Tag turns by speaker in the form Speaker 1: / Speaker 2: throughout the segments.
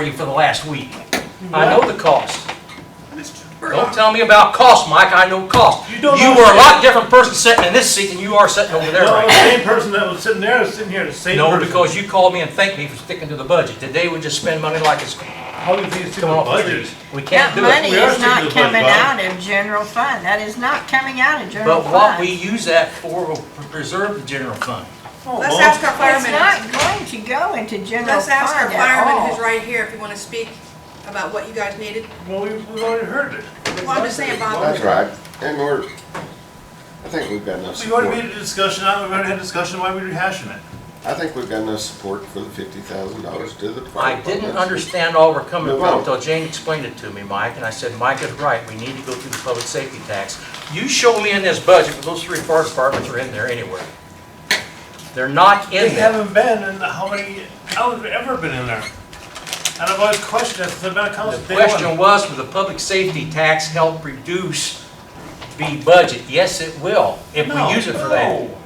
Speaker 1: for you for the last week. I know the cost. Don't tell me about cost, Mike, I know cost.
Speaker 2: You
Speaker 1: You
Speaker 2: don't
Speaker 1: were a lot
Speaker 2: understand.
Speaker 1: different person sitting in this seat than you are sitting over there
Speaker 2: No,
Speaker 1: right
Speaker 2: the
Speaker 1: now.
Speaker 2: same person that was sitting there is sitting here, the same
Speaker 1: No,
Speaker 2: person.
Speaker 1: because you called me and thanked me for sticking to the budget. Today, we just spend money like it's
Speaker 2: How do you think it's
Speaker 1: coming
Speaker 2: gonna
Speaker 1: off the
Speaker 2: budget?
Speaker 1: trees. We can't
Speaker 3: That
Speaker 1: do it.
Speaker 3: money
Speaker 2: We are
Speaker 3: is not
Speaker 2: sticking to the budget,
Speaker 3: coming
Speaker 2: Bob.
Speaker 3: out of general fund. That is not coming out of general
Speaker 1: But
Speaker 3: fund.
Speaker 1: what we use that for will preserve the general fund.
Speaker 2: Oh,
Speaker 4: Let's
Speaker 2: well,
Speaker 4: ask our
Speaker 3: It's
Speaker 4: firemen,
Speaker 3: not going to go into general
Speaker 4: let's
Speaker 3: fund
Speaker 4: ask our
Speaker 3: at
Speaker 4: fireman who's
Speaker 3: all.
Speaker 4: right here if you want to speak about what you guys needed.
Speaker 2: Well, we- we've already heard it.
Speaker 4: Well, I'm just saying, Bob,
Speaker 5: That's right, and we're, I think we've got enough
Speaker 2: We've already
Speaker 5: support,
Speaker 2: made a discussion, out, we've already had a discussion, why are we rehashing it?
Speaker 5: I think we've got enough support for the fifty thousand dollars to the. fire
Speaker 1: I didn't
Speaker 5: department.
Speaker 1: understand all we're coming
Speaker 5: No.
Speaker 1: from until Jane explained it to me, Mike, and I said, Mike is right, we need to go through the public safety tax. You show me in this budget, but those three fire departments are in there anywhere. They're not
Speaker 2: They
Speaker 1: in there.
Speaker 2: haven't been in how many, how have ever been in there? And I've always questioned it, since I've been on
Speaker 1: The
Speaker 2: council day
Speaker 1: question
Speaker 2: one.
Speaker 1: was, will the public safety tax help reduce the budget? Yes, it will, if
Speaker 2: No,
Speaker 1: we use it for that.
Speaker 2: no.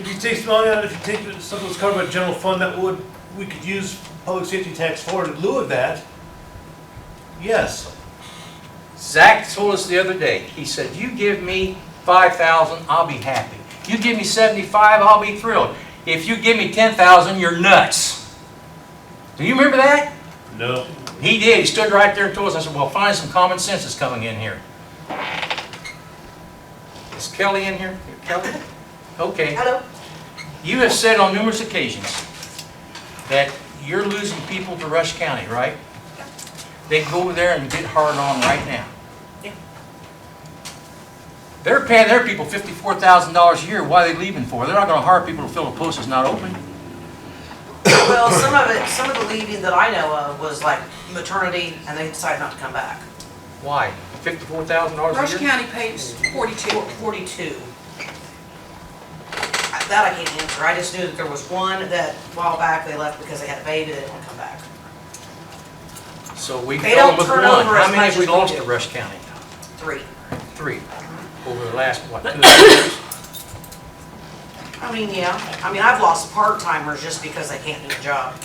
Speaker 2: If you take some money out, if you take some of those covered by general fund that would, we could use public safety tax for in lieu of that, yes.
Speaker 1: Zach told us the other day, he said, you give me five thousand, I'll be happy. You give me seventy-five, I'll be thrilled. If you give me ten thousand, you're nuts. Do you remember that?
Speaker 2: No.
Speaker 1: He did, he stood right there and told us, I said, well, finally some common sense is coming in here. Is Kelly in here? Kelly? Okay.
Speaker 4: Hello?
Speaker 1: You have said on numerous occasions that you're losing people to Rush County, right? They go over there and get hard on right now.
Speaker 4: Yeah.
Speaker 1: They're paying their people fifty-four thousand dollars a year. Why are they leaving for? They're not gonna hire people to fill a post that's not open.
Speaker 6: Well, some of it, some of the leaving that I know of was like maternity and they decided not to come back.
Speaker 1: Why? Fifty-four thousand dollars
Speaker 4: Rush
Speaker 1: a year?
Speaker 4: County pays 42.
Speaker 6: Forty-two. I- That I can't answer. I just knew that there was one that a while back they left because they had a baby, they didn't want to come back.
Speaker 1: So we
Speaker 6: They
Speaker 1: fell
Speaker 6: don't
Speaker 1: with one.
Speaker 6: turn over
Speaker 1: How
Speaker 6: as
Speaker 1: many have
Speaker 6: much
Speaker 1: we
Speaker 6: as we
Speaker 1: lost
Speaker 6: do.
Speaker 1: to Rush County?
Speaker 6: Three.
Speaker 1: Three. Over the last, what, two years?
Speaker 6: I mean, yeah, I mean, I've lost part-timers just because they can't do the job.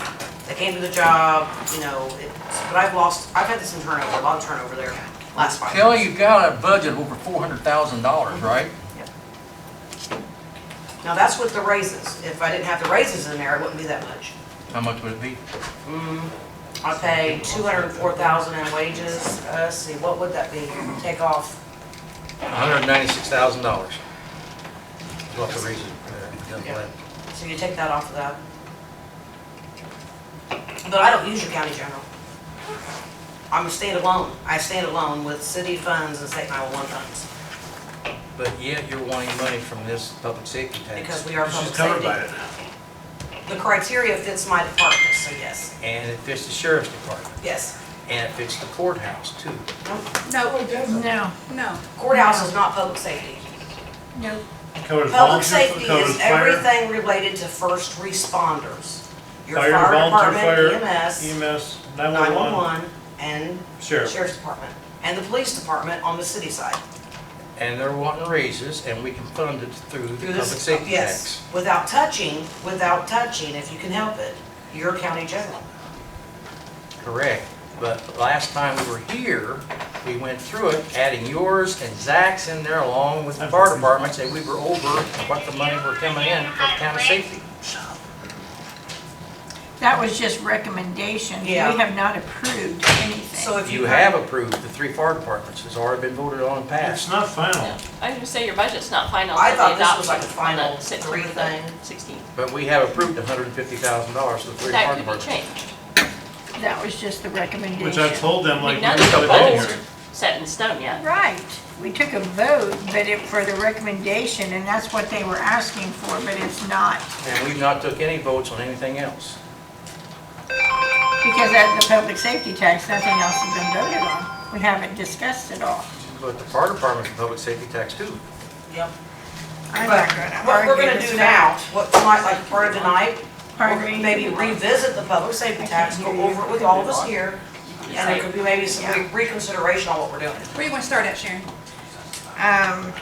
Speaker 6: They can't do the job, you know, it's, but I've lost, I've had some turnover, a lot of turnover there last five
Speaker 1: Kelly,
Speaker 6: years.
Speaker 1: you've got a budget of over four hundred thousand dollars, right?
Speaker 6: Now, that's with the raises. If I didn't have the raises in there, it wouldn't be that much.
Speaker 1: How much would it be?
Speaker 6: I pay two hundred and four thousand in wages, uh, let's see, what would that be, take off,
Speaker 1: $196,000. What the reason? uh,
Speaker 6: Yeah. so you take that off of that. But I don't use your county general. I'm a state alone, I stand alone with city funds and state nine-one-one funds,
Speaker 1: But yet you're wanting money from this public safety
Speaker 6: because
Speaker 1: tax,
Speaker 6: we are
Speaker 2: She's
Speaker 6: public
Speaker 2: covered by
Speaker 6: safety.
Speaker 2: it.
Speaker 6: The criteria fits my department, so yes,
Speaker 1: and it fits the sheriff's department,
Speaker 6: yes.
Speaker 1: and it fits the courthouse too.
Speaker 4: No,
Speaker 3: No,
Speaker 4: no.
Speaker 6: Courthouse is not public safety.
Speaker 3: no.
Speaker 2: Covers
Speaker 6: Public
Speaker 2: volunteer-
Speaker 6: safety
Speaker 2: covers
Speaker 6: is
Speaker 2: fire,
Speaker 6: everything related to first responders. Your
Speaker 2: fire,
Speaker 6: fire
Speaker 2: volunteer
Speaker 6: department, E
Speaker 2: fire, E
Speaker 6: EMS,
Speaker 2: EMS, nine-one-one,
Speaker 6: 911, and
Speaker 2: sheriff.
Speaker 6: Sheriff's Department, and the Police Department on the city side.
Speaker 1: And they're wanting raises, and we can fund it through the
Speaker 6: Through
Speaker 1: public
Speaker 6: this-
Speaker 1: safety
Speaker 6: Yes,
Speaker 1: tax.
Speaker 6: without touching, without touching, if you can help it, your county general.
Speaker 1: Correct. But last time we were here, we went through it, adding yours and Zach's in there along with the fire departments, and we were over what the money were coming in for county safety.
Speaker 3: That was just recommendations. We
Speaker 6: Yeah.
Speaker 3: have not approved
Speaker 6: So
Speaker 3: anything.
Speaker 6: if you.
Speaker 1: You have approved the three fire departments, it's already been voted on and
Speaker 2: It's
Speaker 1: passed.
Speaker 2: not final.
Speaker 7: I was gonna say, your budget's not final.
Speaker 6: I
Speaker 7: so
Speaker 6: thought this
Speaker 7: they adopt
Speaker 6: was like the
Speaker 7: on
Speaker 6: final three
Speaker 7: September the
Speaker 6: thing.
Speaker 7: 16th.
Speaker 1: But we have approved hundred and fifty thousand dollars to the three
Speaker 7: That
Speaker 1: fire
Speaker 7: could be
Speaker 1: departments.
Speaker 7: changed.
Speaker 3: That was just the recommendation.
Speaker 2: Which I told them,
Speaker 7: I
Speaker 2: like,
Speaker 7: mean,
Speaker 2: we
Speaker 7: none of
Speaker 2: should
Speaker 7: the
Speaker 1: took a
Speaker 2: have been
Speaker 1: vote.
Speaker 7: goals
Speaker 2: here.
Speaker 7: are set in stone yet.
Speaker 3: Right. We took a vote, but it, for the recommendation, and that's what they were asking for, but it's not.
Speaker 1: And we've not took any votes on anything else.
Speaker 3: Because at the public safety tax, nothing else has been voted on. We haven't discussed it all.
Speaker 1: But the fire department's a public safety tax too.
Speaker 6: Yep.
Speaker 3: I'm
Speaker 6: But
Speaker 3: not gonna
Speaker 6: what we're
Speaker 3: argue
Speaker 6: gonna
Speaker 3: this
Speaker 6: do
Speaker 3: fact.
Speaker 6: now, what tonight, like part of the night,
Speaker 3: Pardon me?
Speaker 6: we'll maybe revisit the public safety tax, go over it with all of us here, and there could be maybe some re- reconsideration on what we're doing.
Speaker 4: Where you want to start at, Sharon?
Speaker 3: Um,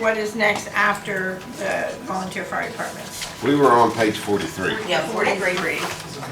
Speaker 3: what is next after the volunteer fire department?
Speaker 5: We were on page forty-three.
Speaker 6: Yeah, forty-three.